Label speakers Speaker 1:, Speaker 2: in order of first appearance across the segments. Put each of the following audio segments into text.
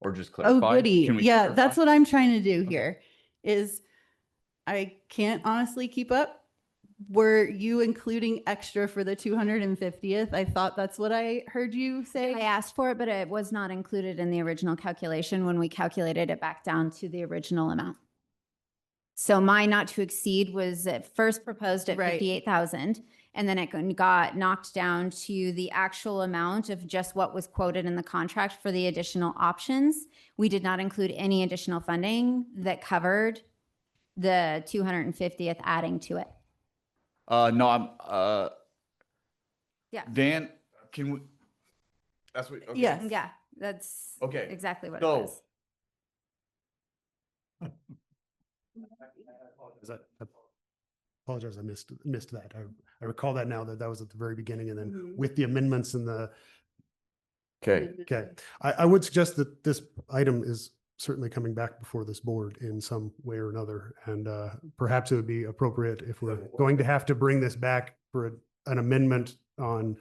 Speaker 1: or just
Speaker 2: Oh,
Speaker 1: clarify?
Speaker 2: goody.
Speaker 1: Can we
Speaker 2: Yeah, that's
Speaker 1: clarify?
Speaker 2: what I'm trying to do here is I can't honestly keep up. Were you including extra for the 250th? I thought that's what I heard you
Speaker 3: I
Speaker 2: say.
Speaker 3: asked for it, but it was not included in the original calculation when we calculated it back down to the original amount. So my not to exceed was at first proposed at
Speaker 2: Right.
Speaker 3: fifty-eight thousand, and then it gon- got knocked down to the actual amount of just what was quoted in the contract for the additional options. We did not include any additional funding that covered the two hundred and fiftieth adding to it.
Speaker 1: Uh, no, I'm, uh.
Speaker 3: Yeah.
Speaker 1: Dan, can we? That's what. okay.
Speaker 2: Yes.
Speaker 3: Yeah, that's
Speaker 1: Okay,
Speaker 3: exactly what it
Speaker 1: so-
Speaker 3: was.
Speaker 4: Is that, I apologize, I missed, missed that. I, I recall that now that that was at the very beginning and then
Speaker 2: Mhm.
Speaker 4: with the amendments and the,
Speaker 1: okay,
Speaker 4: okay. I, I would suggest that this item is certainly coming back before this board in some way or another. And uh, perhaps it would be appropriate if we're going to have to bring this back for a- an amendment on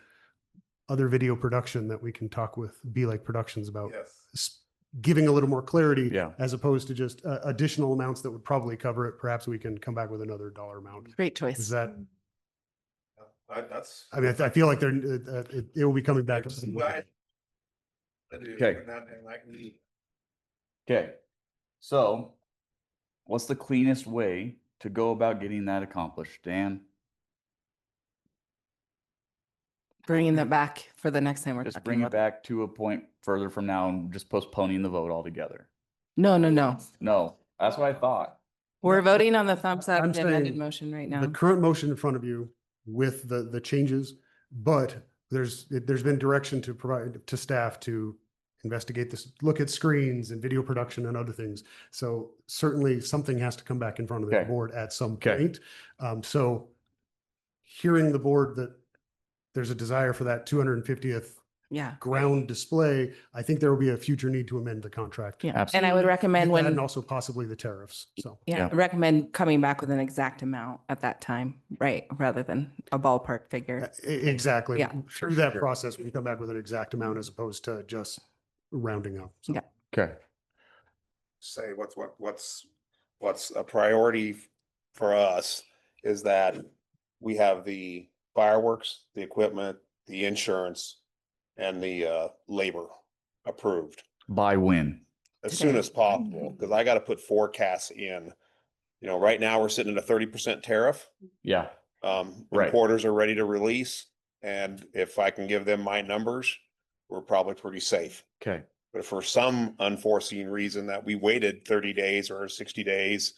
Speaker 4: other video production that we can talk with Be Like Productions about. s- Giving a little more clarity.
Speaker 1: Yeah.
Speaker 4: As opposed to just uh, additional amounts that would probably cover it. Perhaps we can come back with another dollar amount.
Speaker 5: Great
Speaker 4: Is
Speaker 5: choice.
Speaker 4: that,
Speaker 6: That's.
Speaker 4: I mean, I- I feel like they're, uh, uh, it, it will be coming back. to some-
Speaker 1: Okay. okay. So what's the cleanest way to go about getting that accomplished, Dan?
Speaker 5: Bringing that back for the next time we're
Speaker 1: Just
Speaker 5: talking
Speaker 1: bring it
Speaker 5: about. it.
Speaker 1: back to a point further from now and just postponing the vote altogether.
Speaker 5: No, no, no.
Speaker 1: No, that's what I thought.
Speaker 5: We're voting on the thumbs up
Speaker 4: I'm
Speaker 5: the amended
Speaker 4: saying
Speaker 5: motion right
Speaker 4: The
Speaker 5: now.
Speaker 4: current motion in front of you with the, the changes, but there's, it- there's been direction to provide to staff to investigate this, look at screens and video production and other things. So certainly something has to come back in front of the
Speaker 1: Okay.
Speaker 4: board at some
Speaker 1: Okay.
Speaker 4: point. Um, so hearing the board that there's a desire for that two hundred and fiftieth
Speaker 5: Yeah.
Speaker 4: ground display, I think there will be a future need to amend the contract.
Speaker 5: Yeah. And I would recommend
Speaker 4: That And
Speaker 5: when,
Speaker 4: also possibly the tariffs, so.
Speaker 1: Yeah.
Speaker 5: yeah, I recommend coming back with an exact amount at that time, right? Rather than a ballpark
Speaker 4: Uh,
Speaker 5: figure.
Speaker 4: e- Exactly.
Speaker 5: Yeah.
Speaker 4: Through that process, we come back with an exact amount as opposed to just rounding up. So
Speaker 5: Yeah.
Speaker 1: Okay.
Speaker 6: Say what's, what, what's, what's a priority f- for us is that we have the fireworks, the equipment, the insurance, and the, uh, labor approved
Speaker 1: By when?
Speaker 6: as soon
Speaker 5: Today.
Speaker 6: as possible, because I gotta put forecasts in. You know, right now, we're sitting at a thirty percent tariff.
Speaker 1: Yeah.
Speaker 6: Um,
Speaker 1: Right.
Speaker 6: reporters are ready to release, and if I can give them my numbers, we're probably pretty safe.
Speaker 1: Okay.
Speaker 6: But for some unforeseen reason that we waited thirty days or sixty days,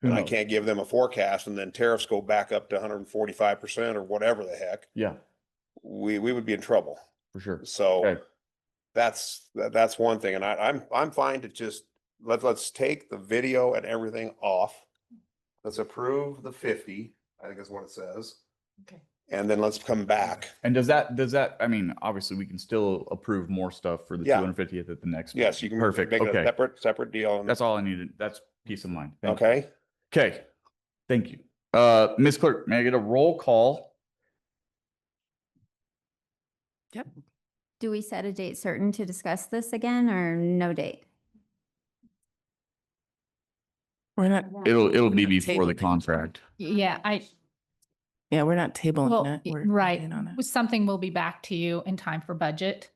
Speaker 1: Who
Speaker 6: and I
Speaker 1: knows?
Speaker 6: can't give them a forecast, and then tariffs go back up to one hundred and forty-five percent or whatever the heck,
Speaker 1: Yeah,
Speaker 6: we we would be in trouble.
Speaker 1: for sure.
Speaker 6: So
Speaker 1: Okay.
Speaker 6: that's, that, that's one thing. And I, I'm, I'm fine to just, let, let's take the video and everything off. Let's approve the fifty, I think is what it says.
Speaker 5: Okay.
Speaker 6: And then let's come back.
Speaker 1: And does that, does that, I mean, obviously we can still approve more stuff for the two
Speaker 6: Yeah.
Speaker 1: hundred fiftieth at the next.
Speaker 6: Yes, you
Speaker 1: meeting.
Speaker 6: can.
Speaker 1: Perfect.
Speaker 6: Make it a
Speaker 1: Okay.
Speaker 6: Separate, separate deal. and-
Speaker 1: That's all I needed. That's peace of mind. Thank you.
Speaker 6: Okay,
Speaker 1: Okay. Thank you. Uh, Ms. Clerk, may I get a roll call?
Speaker 5: Yep.
Speaker 3: Do we set a date certain to discuss this again or no date?
Speaker 5: We're not,
Speaker 1: It'll, it'll be
Speaker 5: Yeah,
Speaker 1: before the
Speaker 5: table.
Speaker 1: contract.
Speaker 7: Yeah, I,
Speaker 5: yeah, we're not tabling
Speaker 7: well,
Speaker 5: it.
Speaker 7: y-
Speaker 5: We're
Speaker 7: right.
Speaker 5: voting on it.
Speaker 7: Something will be back to you in time for budget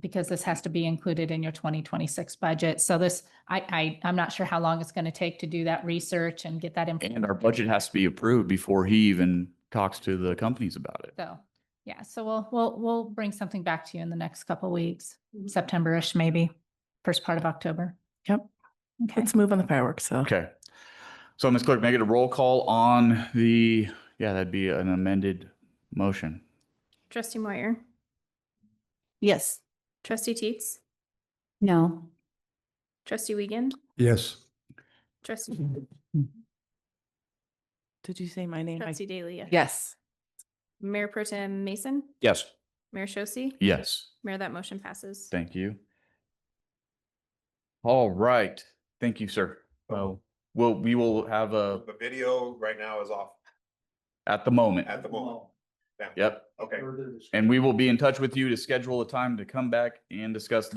Speaker 7: because this has to be
Speaker 5: Mm-hmm.
Speaker 7: included in your twenty twenty-six budget. So this, I, I, I'm not sure how long it's going to take to do that research and get that
Speaker 1: And
Speaker 7: information.
Speaker 1: our budget has to be approved before he even talks to the companies about it.
Speaker 7: So, yeah, so we'll, we'll, we'll bring something back to you in the next couple weeks, September-ish maybe, first part of October.
Speaker 5: Mm-hmm. Yep.
Speaker 7: Okay.
Speaker 5: Let's move on the fireworks. So
Speaker 1: Okay. So Ms. Clerk, may I get a roll call on the, yeah, that'd be an amended motion.
Speaker 8: Trustee Moyer,
Speaker 5: yes.
Speaker 8: trustee Teets,
Speaker 3: No.
Speaker 8: trustee Wiegand,
Speaker 4: Yes.
Speaker 8: trustee,
Speaker 5: Mm-hmm.
Speaker 4: Mm-hmm.
Speaker 5: Did you say my name? I-
Speaker 8: trustee Dalia.
Speaker 5: Yes.
Speaker 8: Mayor Pro Tem Mason,
Speaker 1: Yes.
Speaker 8: Mayor Shosse,
Speaker 1: Yes.
Speaker 8: Mayor, that motion passes.
Speaker 1: Thank you. All right. Thank you, sir. Well, we'll, we will have a,
Speaker 6: the video right now is off
Speaker 1: at the moment.
Speaker 6: at the moment. Yeah.
Speaker 1: Yep.
Speaker 6: Okay.
Speaker 1: And we will be in touch with you to schedule a time to come back and discuss